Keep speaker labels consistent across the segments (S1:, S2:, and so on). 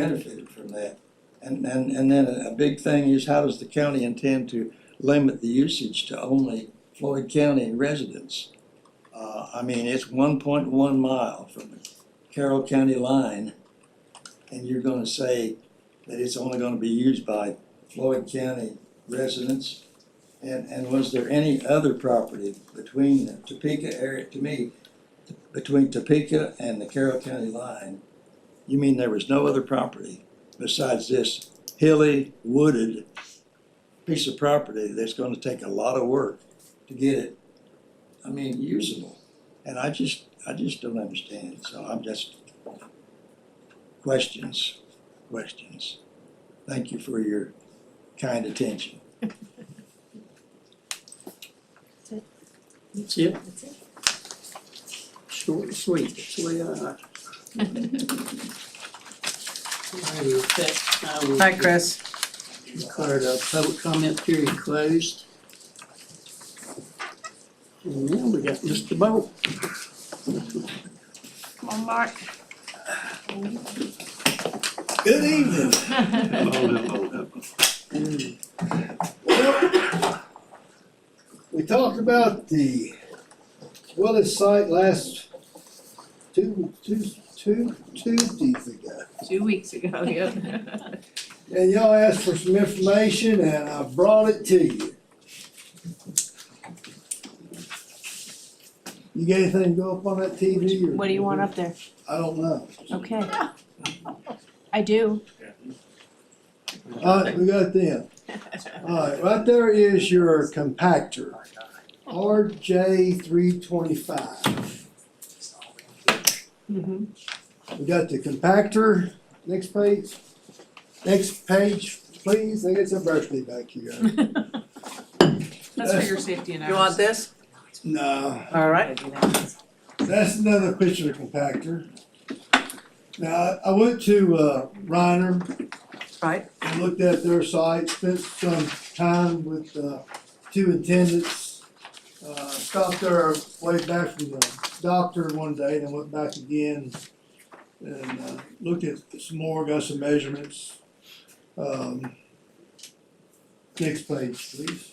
S1: benefited from that. And, and, and then a a big thing is how does the county intend to limit the usage to only Floyd County residents? Uh, I mean, it's one point one mile from the Carroll County line. And you're gonna say that it's only gonna be used by Floyd County residents? And, and was there any other property between the Topeka area, to me, between Topeka and the Carroll County line? You mean there was no other property besides this hilly, wooded piece of property that's gonna take a lot of work to get it, I mean, usable? And I just, I just don't understand, so I'm just, questions, questions. Thank you for your kind attention.
S2: That's it,
S3: That's it.
S2: short and sweet, that's the way I like it. Alrighty, with that, I will.
S4: Hi, Chris.
S2: Declare the public comment period closed. And now we got Mr. Bolt.
S3: Come on, Mark.
S5: Good evening. We talked about the Willis site last two, two, two, Tuesdays ago.
S3: Two weeks ago, yep.
S5: And y'all asked for some information and I brought it to you. You got anything to go up on that TV or?
S6: What do you want up there?
S5: I don't know.
S6: Okay. I do.
S5: Alright, we got them. Alright, right there is your compactor, RJ three twenty-five.
S6: Mhm.
S5: We got the compactor, next page, next page, please, I got some birthday back here.
S3: That's for your safety and
S4: You want
S3: ours.
S4: this?
S5: No,
S4: All right.
S5: that's another picture of the compactor. Now, I- I went to, uh, Reiner,
S4: Right.
S5: I looked at their site, spent some time with, uh, two attendants. Uh, stopped there way back from the doctor one day, then went back again and, uh, looked at some more, got some measurements. Um, next page, please.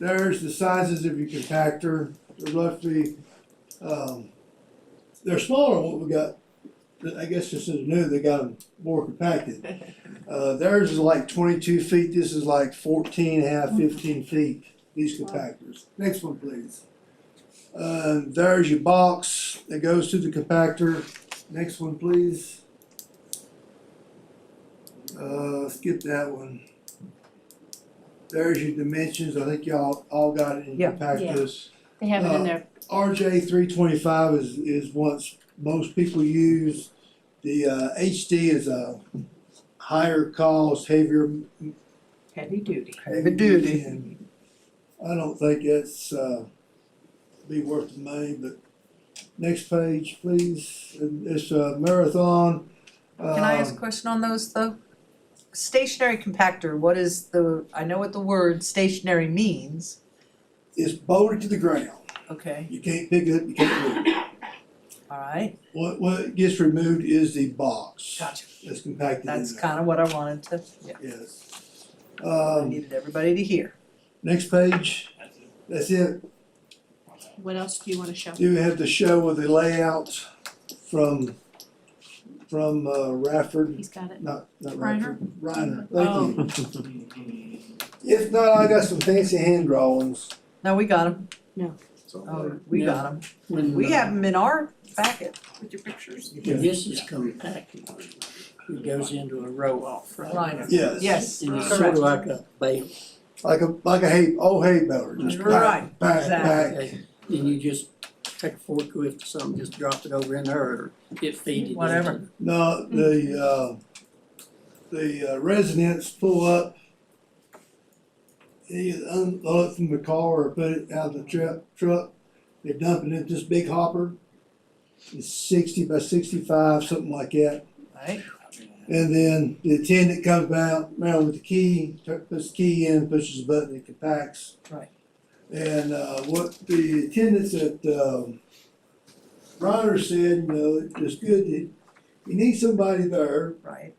S5: There's the sizes of your compactor, they're roughly, um, they're smaller than what we got. I guess this is new, they got them more compacted. Uh, theirs is like twenty-two feet, this is like 14 and a half, 15 feet, these compactors. Next one, please. Uh, there's your box that goes to the compactor. Next one, please. Uh, skip that one. There's your dimensions, I think y'all all got it in
S4: Yeah.
S5: compactors.
S6: They have it in there.
S5: RJ three twenty five is is what's most people use. The uh, HD is a higher cost, heavier.
S3: Heavy duty.
S5: Heavy
S4: duty.
S5: and I don't think it's uh, be worth the money, but next page, please. And It's a marathon. Um,
S4: Can I ask a question on those, though? Stationary compactor, what is the, I know what the word stationary means,
S5: It's bolted to the ground.
S4: okay,
S5: You can't pick it up. You can't move. it.
S4: all right,
S5: What what gets removed is the box.
S4: gotcha.
S5: That's compacted
S4: That's
S5: in there.
S4: kinda what I wanted to, yeah,
S5: yes.
S4: I
S5: Um,
S4: needed everybody to hear.
S5: Next page, that's it.
S6: What else do you wanna show?
S5: You have the show of the layout from, from uh, Rafford,
S6: He's got it.
S5: not, not
S3: Reiner?
S5: Rafford. Reiner, thank you. If not, I got some fancy hand drawings.
S4: No, we got them,
S2: Or
S4: oh, we
S2: now,
S4: got them,
S2: When,
S4: we have
S2: uh,
S4: them in our packet,
S3: With your pictures.
S2: when this is compacted, it goes into a row off, right?
S4: Liner.
S5: Yes.
S4: yes,
S2: And it's sort
S4: correct,
S2: of like a bale,
S5: Like a, like a hay, old hay baler, just back,
S4: Right,
S5: back,
S4: exactly.
S5: back.
S2: okay? And you just take a forklift or something, just drop it over in there or get feed it into
S4: Whatever.
S5: No, the, uh, the uh, residents pull up. They either unload it from the car or put it out of the truck, truck, they dump it into this big hopper. It's sixty by sixty-five, something like that,
S4: right?
S5: and then the attendant comes out, around with the key, tur- puts the key in, pushes the button, it compacts.
S4: Right.
S5: And, uh, what the attendants at, um, Reiner said, you know, it's good that
S7: you need somebody there
S5: right?